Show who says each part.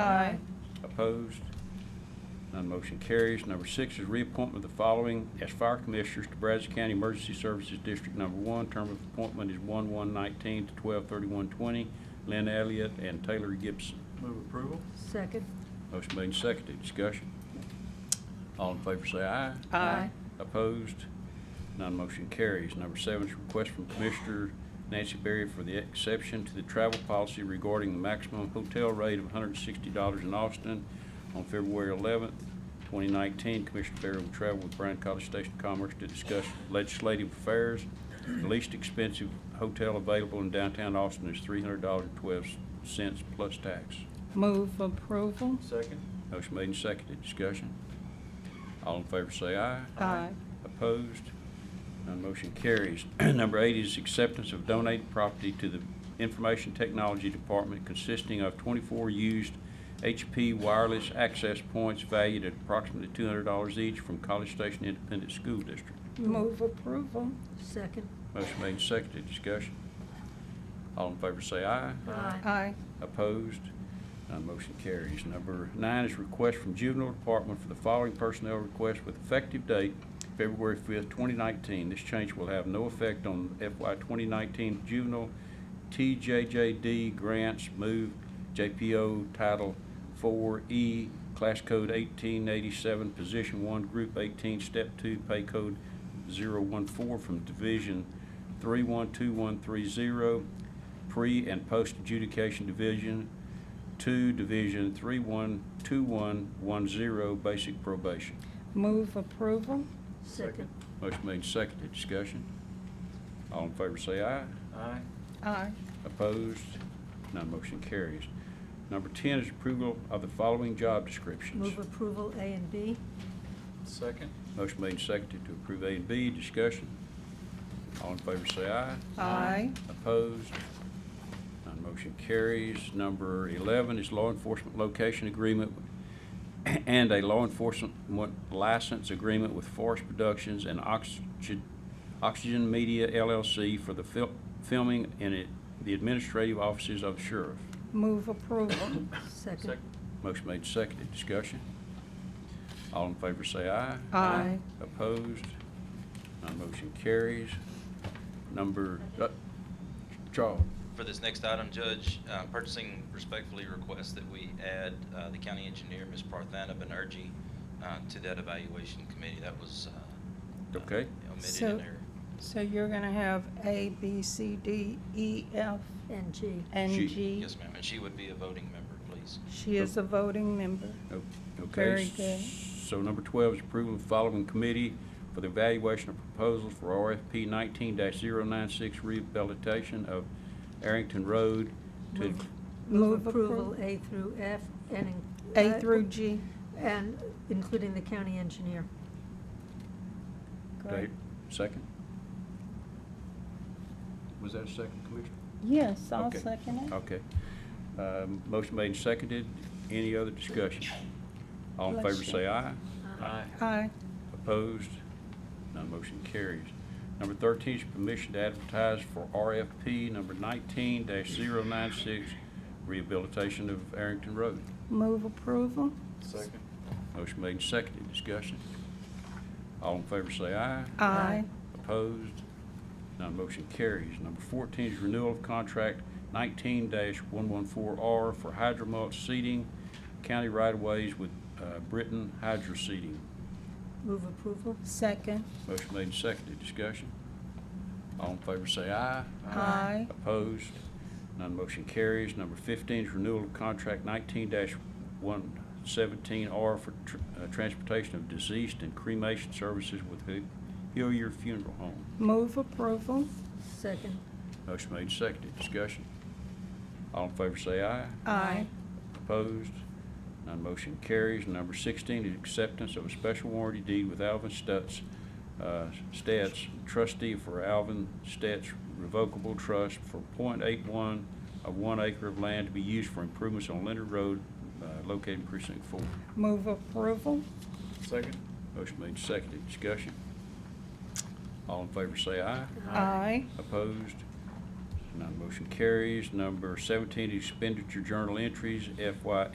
Speaker 1: Aye.
Speaker 2: Opposed? None motion carries. Number six is reappointment of the following as fire commissioners to Brazos County Emergency Services District Number One. Term of appointment is one one nineteen to twelve thirty-one twenty. Lynn Elliott and Taylor Gibson.
Speaker 3: Move approval?
Speaker 1: Second.
Speaker 2: Motion made and seconded. Discussion. All in favor say aye.
Speaker 1: Aye.
Speaker 2: Opposed? None motion carries. Number seven is request from Commissioner Nancy Berry for the exception to the travel policy regarding the maximum hotel rate of $160 in Austin. On February 11th, 2019, Commissioner Berry will travel with Bryan College Station of Commerce to discuss legislative affairs. The least expensive hotel available in downtown Austin is $300.12 plus tax.
Speaker 1: Move approval.
Speaker 3: Second?
Speaker 2: Motion made and seconded. Discussion. All in favor say aye.
Speaker 1: Aye.
Speaker 2: Opposed? None motion carries. Number eight is acceptance of donated property to the Information Technology Department consisting of 24 used HP wireless access points valued at approximately $200 each from College Station Independent School District.
Speaker 1: Move approval. Second.
Speaker 2: Motion made and seconded. Discussion. All in favor say aye.
Speaker 1: Aye.
Speaker 2: Opposed? None motion carries. Number nine is request from Juvenile Department for the following personnel request with effective date February 5th, 2019. This change will have no effect on FY 2019 juvenile TJJD grants move JPO Title 4E, Class Code 1887, Position 1, Group 18, Step 2, Pay Code 014 from Division 312130 pre and post adjudication division, two, division three one two one one zero, basic probation.
Speaker 1: Move approval.
Speaker 3: Second.
Speaker 2: Motion made and seconded, discussion. All in favor say aye.
Speaker 3: Aye.
Speaker 1: Aye.
Speaker 2: Opposed? None motion carries. Number ten is approval of the following job descriptions.
Speaker 4: Move approval A and B.
Speaker 3: Second?
Speaker 2: Motion made and seconded to approve A and B, discussion. All in favor say aye.
Speaker 1: Aye.
Speaker 2: Opposed? None motion carries. Number 11 is law enforcement location agreement and a law enforcement license agreement with Forest Productions and Oxygen Oxygen Media LLC for the fil- filming in it- the administrative offices of sheriff.
Speaker 1: Move approval.
Speaker 4: Second.
Speaker 2: Motion made, seconded. Discussion? All in favor say aye.
Speaker 1: Aye.
Speaker 2: Opposed? None motion carries. Number, uh, Charles?
Speaker 5: For this next item, Judge, uh, purchasing respectfully requests that we add uh, the county engineer, Ms. Parthana Banerjee, uh, to that evaluation committee. That was uh,
Speaker 2: Okay.
Speaker 5: omitted
Speaker 1: So-
Speaker 5: in there.
Speaker 1: So you're going to have A, B, C, D, E, F,
Speaker 4: And G.
Speaker 1: and
Speaker 2: She-
Speaker 1: G.
Speaker 5: Yes, ma'am, and she would be a voting member, please.
Speaker 1: She is a voting member.
Speaker 2: O- Okay.
Speaker 1: Very good.
Speaker 2: So number 12 is approval of the following committee for the evaluation of proposals for RFP 19-096 rehabilitation of Arrington Road to,
Speaker 4: Move-
Speaker 1: Move
Speaker 4: Move approval
Speaker 1: approval.
Speaker 4: A through F and. in- uh,
Speaker 1: A through G.
Speaker 4: And including the county engineer.
Speaker 2: Do I hear- second? Was that a second, Commissioner?
Speaker 1: Yes, I'll
Speaker 2: Okay.
Speaker 1: second it.
Speaker 2: Okay. Um, Motion made and seconded. Any other discussion? All in
Speaker 1: Bless
Speaker 2: favor
Speaker 1: you.
Speaker 2: say aye.
Speaker 3: Aye.
Speaker 1: Aye.
Speaker 2: Opposed? None motion carries. Number 13 is permission to advertise for RFP number 19-096, rehabilitation of Arrington Road.
Speaker 1: Move approval.
Speaker 3: Second?
Speaker 2: Motion made and seconded. Discussion. All in favor say aye.
Speaker 1: Aye.
Speaker 2: Opposed? None motion carries. Number 14 is renewal of contract 19-114R for hydromulch seeding, county right-of-ways with uh, Britton Hydro Seeding.
Speaker 4: Move approval.
Speaker 1: Second.
Speaker 2: Motion made and seconded. Discussion. All in favor say aye.
Speaker 1: Aye.
Speaker 2: Opposed? None motion carries. Number 15 is renewal of contract 19-117R for tr- uh, transportation of deceased and cremation services with Hill- Hillier Funeral Home.
Speaker 1: Move approval.
Speaker 4: Second.
Speaker 2: Motion made and seconded. Discussion. All in favor say aye.
Speaker 1: Aye.
Speaker 2: Opposed? None motion carries. Number 16 is acceptance of a special warranty deed with Alvin Stutz, uh, Stats, trustee for Alvin Stutz Revocable Trust for .81 of one acre of land to be used for improvements on Leonard Road uh, located in precinct four.
Speaker 1: Move approval.
Speaker 3: Second?
Speaker 2: Motion made, and seconded. Discussion. All in favor say aye.
Speaker 1: Aye.
Speaker 2: Opposed? None motion carries. Number 17 expenditure journal entries FY